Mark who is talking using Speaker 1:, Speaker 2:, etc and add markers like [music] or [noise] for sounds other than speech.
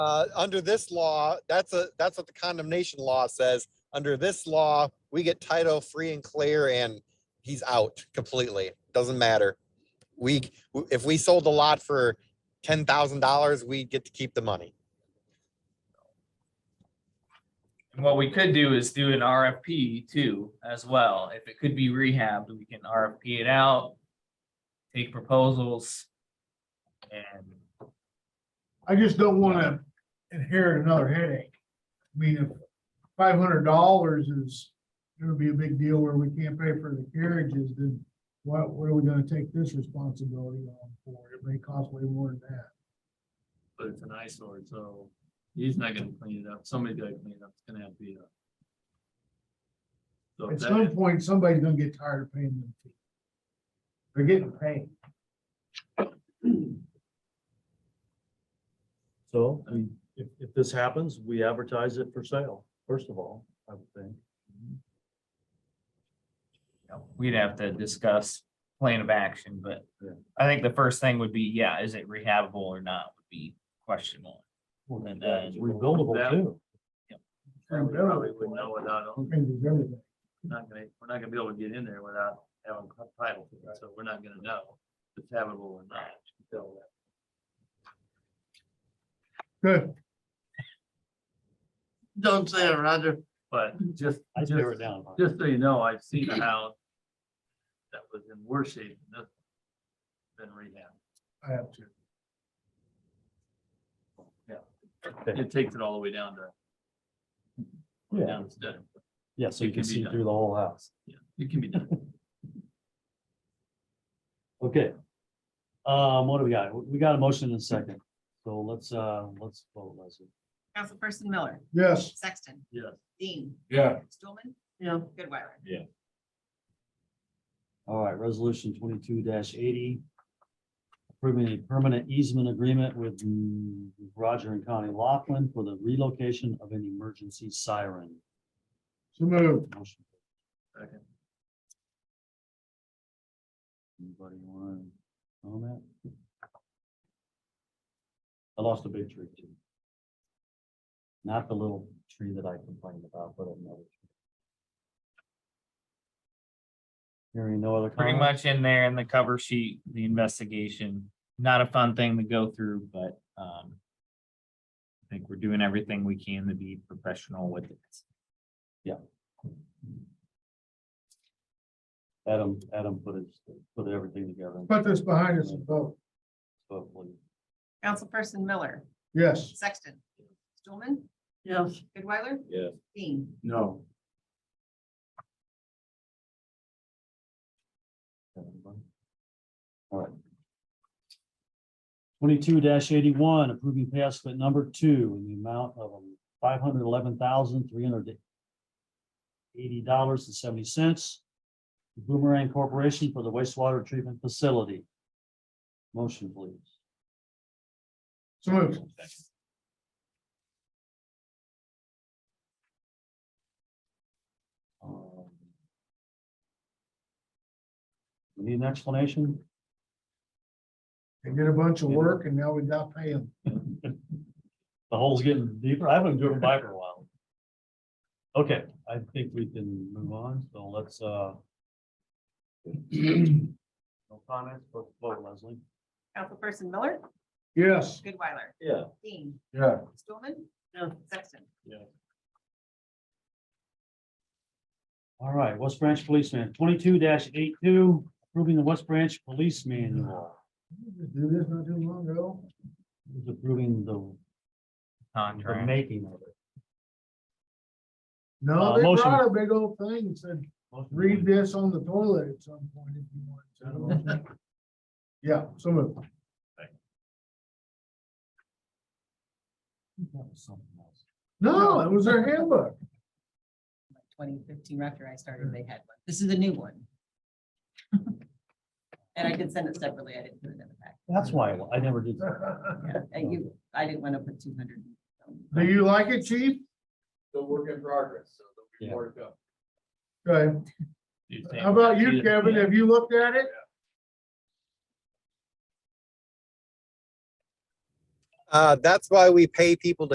Speaker 1: Uh, under this law, that's a, that's what the condemnation law says. Under this law, we get title free and clear and he's out completely. Doesn't matter. We, if we sold the lot for ten thousand dollars, we get to keep the money.
Speaker 2: And what we could do is do an RFP too, as well. If it could be rehabbed, we can RFP it out. Take proposals. And
Speaker 3: I just don't wanna inherit another headache. I mean, if five hundred dollars is gonna be a big deal where we can't pay for the carriages, then what, what are we gonna take this responsibility on for? It may cost way more than that.
Speaker 4: but it's an eyesore, so he's not gonna clean it up. Somebody's gotta clean it up. It's gonna have to be a. So
Speaker 3: At some
Speaker 4: that,
Speaker 3: point, somebody's gonna get tired of paying them. fees. They're getting paid.
Speaker 5: So we, if, if this happens, we advertise it for sale, first of all, I would think.
Speaker 2: you know, we'd have to discuss plan of action, but
Speaker 5: Yeah.
Speaker 2: I think the first thing would be, yeah, is it rehabbable or not would be question one. And then- uh,
Speaker 5: Rebuildable too.
Speaker 4: that we probably would know without,
Speaker 3: It changes everything.
Speaker 4: not gonna, we're not gonna be able to get in there without having a title, to it, so we're not gonna know if it's habitable or not. until that.
Speaker 3: Good.
Speaker 6: Don't say it, Roger.
Speaker 4: But just,
Speaker 5: I
Speaker 4: just,
Speaker 5: tear it down.
Speaker 4: just so you know, I've seen a house that was in worse shape than this. Been rehabbed.
Speaker 3: I have to.
Speaker 5: Okay.
Speaker 4: It takes it all the way down to,
Speaker 5: Yeah,
Speaker 4: down to, studding.
Speaker 5: yeah, so
Speaker 4: It
Speaker 5: you can
Speaker 4: can be
Speaker 5: see
Speaker 4: done.
Speaker 5: through the whole house.
Speaker 4: yeah, it can be done.
Speaker 5: Okay. Um, what do we got? We got a motion in a second, so let's, uh, let's vote, Leslie.
Speaker 7: Councilperson Miller,
Speaker 3: Yes.
Speaker 7: Sexton,
Speaker 4: Yeah.
Speaker 7: Dean,
Speaker 3: Yeah.
Speaker 7: Stulman,
Speaker 6: Yeah.
Speaker 7: Goodweiler.
Speaker 5: All right, resolution twenty-two eighty. Approving a permanent easement agreement with mm, Roger and Connie Laughlin for the relocation of an emergency siren.
Speaker 3: So move.
Speaker 5: Motion.
Speaker 4: Second.
Speaker 5: Anybody want to comment? I lost a big tree too. Not the little tree that I complained about, but another. tree. Hearing no other.
Speaker 2: Pretty
Speaker 5: comment?
Speaker 2: much in there in the cover sheet, the investigation, not a fun thing to go through, but, um. I think we're doing everything we can to be professional with it.
Speaker 5: Adam, Adam put it, put everything together. and
Speaker 3: Put this behind us and vote.
Speaker 5: hopefully-
Speaker 7: Councilperson Miller,
Speaker 3: Yes.
Speaker 7: Sexton, Stulman,
Speaker 6: Yes,
Speaker 7: Goodweiler.
Speaker 4: Yeah.
Speaker 7: Dean,
Speaker 4: No.
Speaker 5: All right. Twenty-two eighty-one, approving pay estimate number two in the amount of five hundred eleven thousand, three hundred eighty dollars and seventy cents. Boomerang Corporation for the wastewater treatment facility. Motion, please.
Speaker 3: So moved.
Speaker 5: Um, we Need an explanation?
Speaker 3: They did a bunch of work and now we got paid them. [clears throat]
Speaker 5: [laughs] The hole's getting deeper. I haven't driven by for a while. Okay, I think we can move on, so let's, uh. No comments, but vote Leslie.
Speaker 7: Councilperson Miller,
Speaker 3: Yes.
Speaker 7: Goodweiler,
Speaker 5: Yeah.
Speaker 7: Dean,
Speaker 3: Yeah.
Speaker 7: Stulman.
Speaker 6: No.
Speaker 7: Sexton,
Speaker 5: All right, West Branch Policeman, twenty-two 82 approving the West Branch Police Manual.
Speaker 3: Do this not too long ago.
Speaker 5: Who's Approving the, the
Speaker 2: Contract.
Speaker 5: making of it.
Speaker 3: No,
Speaker 5: Uh,
Speaker 3: they
Speaker 5: motion.
Speaker 3: brought a big old thing and said, read this on the toilet at some point if you want. to." [laughs] Yeah, some of,
Speaker 5: That was something else.
Speaker 3: no, it was their handbook. [laughs]
Speaker 7: twenty fifteen, after I started, they had one. This is a new one. [laughs] And I did send it separately. I didn't put it in the pack.
Speaker 5: That's why I never did. that.
Speaker 3: Do
Speaker 7: Yeah, and you, I didn't want to put two hundred.
Speaker 3: you like it, chief?
Speaker 4: Still work in progress, so
Speaker 5: be Yeah. more
Speaker 4: to go.
Speaker 3: Okay, how about you, Kevin? Have you looked at it?
Speaker 1: Uh, that's why we pay people to